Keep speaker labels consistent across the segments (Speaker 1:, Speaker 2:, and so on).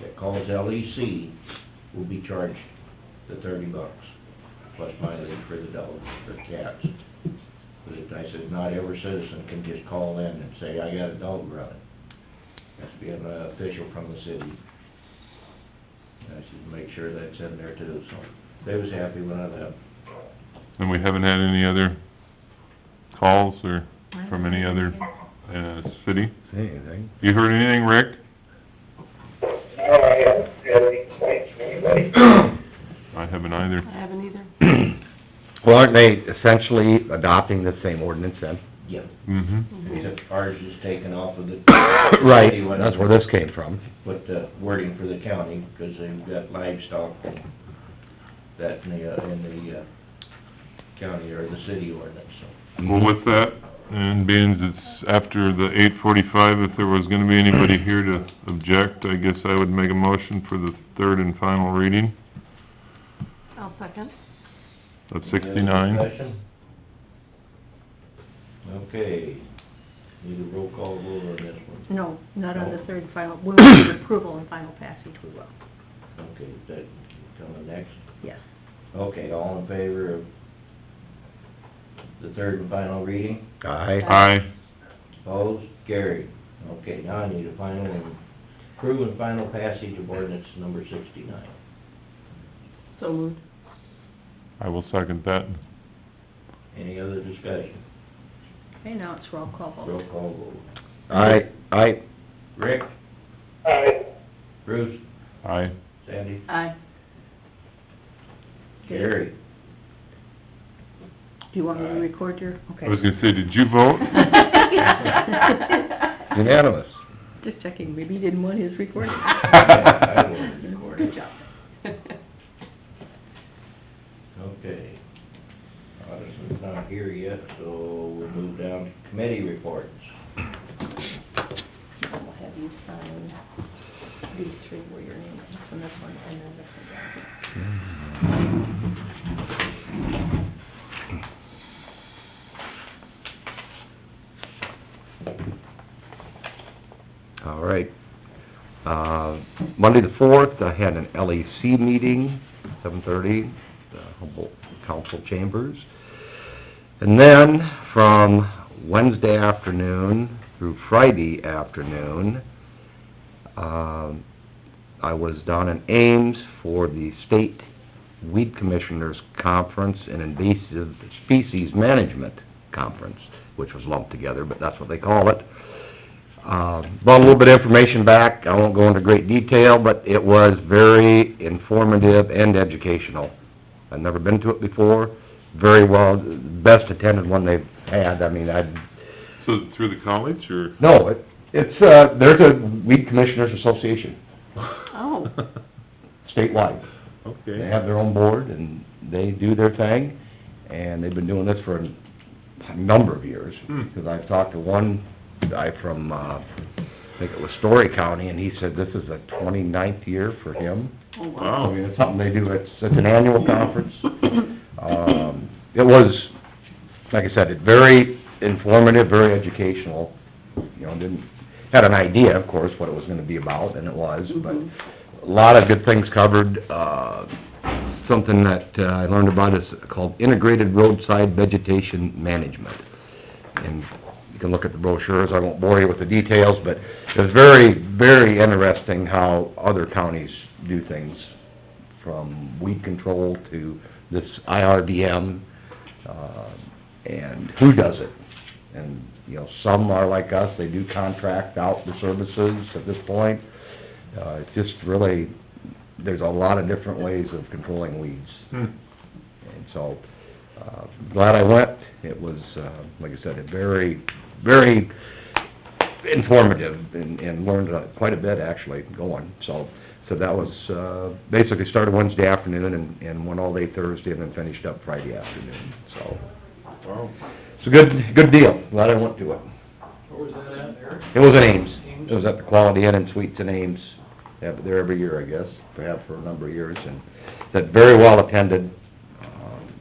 Speaker 1: that calls LEC will be charged the thirty bucks, plus mileage for the dogs, for cats. But it- I said, not every citizen can just call in and say, I got a dog running. Has to be an official from the city. And I should make sure that's in there too, so they was happy when I left.
Speaker 2: And we haven't had any other calls or
Speaker 3: I
Speaker 2: from
Speaker 3: don't
Speaker 2: any
Speaker 3: know.
Speaker 2: other, uh, city?
Speaker 4: Say anything.
Speaker 2: You heard anything, Rick?
Speaker 5: No, I haven't had any complaints from anybody.
Speaker 2: I haven't either.
Speaker 3: I haven't either.
Speaker 4: Well, aren't they essentially adopting the same ordinance then?
Speaker 1: Yeah,
Speaker 2: Mm-hmm.
Speaker 1: except ours is taken off of the.
Speaker 4: Right,
Speaker 1: They went-
Speaker 4: that's where this came from.
Speaker 1: Put the wording for the county, because they've got livestock and that in the, uh, in the, uh, county or the city ordinance, so.
Speaker 2: Well, with that, and being it's after the eight forty-five, if there was gonna be anybody here to object, I guess I would make a motion for the third and final reading
Speaker 3: Mm-hmm. I'll second.
Speaker 2: of
Speaker 1: Any other
Speaker 2: sixty-nine.
Speaker 1: discussion? Okay, need a roll call vote on this one.
Speaker 3: No, not on the third and final, we'll need approval and final passage, we will,
Speaker 1: Okay, is that coming next?
Speaker 3: yes.
Speaker 1: Okay, all in favor of the third and final reading?
Speaker 4: Aye.
Speaker 2: Aye.
Speaker 1: Opposed? Carried. Okay, now I need a final and, approve and final passage of ordinance number sixty-nine.
Speaker 3: So moved.
Speaker 2: I will second that.
Speaker 1: Any other discussion?
Speaker 3: Okay, now it's roll call vote.
Speaker 1: Roll call vote.
Speaker 4: Aye, aye,
Speaker 1: Rick?
Speaker 5: I,
Speaker 1: Bruce?
Speaker 2: Aye.
Speaker 1: Sandy?
Speaker 3: Aye.
Speaker 1: Carried.
Speaker 3: Do you want me to record your, okay.
Speaker 2: I was gonna say, did you vote?
Speaker 4: unanimous.
Speaker 3: Just checking, maybe he didn't want his recorded.
Speaker 1: I will record it.
Speaker 3: Good job.
Speaker 1: Okay. Addison's not here yet, so we'll move down to committee reports.
Speaker 3: I'll have you sign these three where your name is, and this one, and then this one.
Speaker 4: All right. Uh, Monday the fourth, I had an LEC meeting, seven thirty, the Humboldt Council Chambers. And then from Wednesday afternoon through Friday afternoon, um, I was down in Ames for the State Weed Commissioners Conference and Invasive Species Management Conference, which was lumped together, but that's what they call it. Uh, brought a little bit of information back, I won't go into great detail, but it was very informative and educational. I've never been to it before, very well, best attended one they've had, I mean, I've
Speaker 2: So through the college or?
Speaker 4: no, it, it's, uh, there's a weed commissioners association
Speaker 3: Oh.
Speaker 4: statewide. They
Speaker 2: Okay.
Speaker 4: have their own board and they do their thing, and they've been doing this for a number of years.
Speaker 2: Hmm.
Speaker 4: Because I've talked to one guy from, uh, I think it was Story County, and he said this is the twenty-ninth year for him.
Speaker 3: Oh,
Speaker 4: I
Speaker 2: Wow.
Speaker 4: mean, it's something they do, it's, it's an annual conference. Um, it was, like I said, it very informative, very educational, you know, didn't, had an idea, of course, what it was gonna be about, and it was, but
Speaker 3: Mhm.
Speaker 4: a lot of good things covered. Uh, something that uh, I learned about is called Integrated Roadside Vegetation Management. And you can look at the brochures, I won't bore you with the details, but it's very, very interesting how other counties do things, from weed control to this IRDM, uh, and who does it. And, you know, some are like us, they do contract out the services at this point. Uh, it's just really, there's a lot of different ways of controlling weeds.
Speaker 2: Hmm.
Speaker 4: And so, uh, glad I went. It was, uh, like I said, a very, very informative and, and learned uh, quite a bit actually going. So, so that was, uh, basically started Wednesday afternoon and, and went all day Thursday and then finished up Friday afternoon. So,
Speaker 2: Wow.
Speaker 4: it's a good, good deal. Glad I went to it.
Speaker 6: Where was that at, Eric?
Speaker 4: It was in Ames.
Speaker 6: Ames?
Speaker 4: It was at the Quality Inn and Suites in Ames. They have it there every year, I guess, they have for a number of years, and that very well attended, um,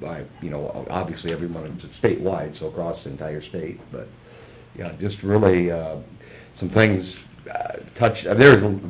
Speaker 4: by, you know, obviously everyone, it's statewide, so across the entire state, but, yeah, just really, uh, some things, uh, touched, there's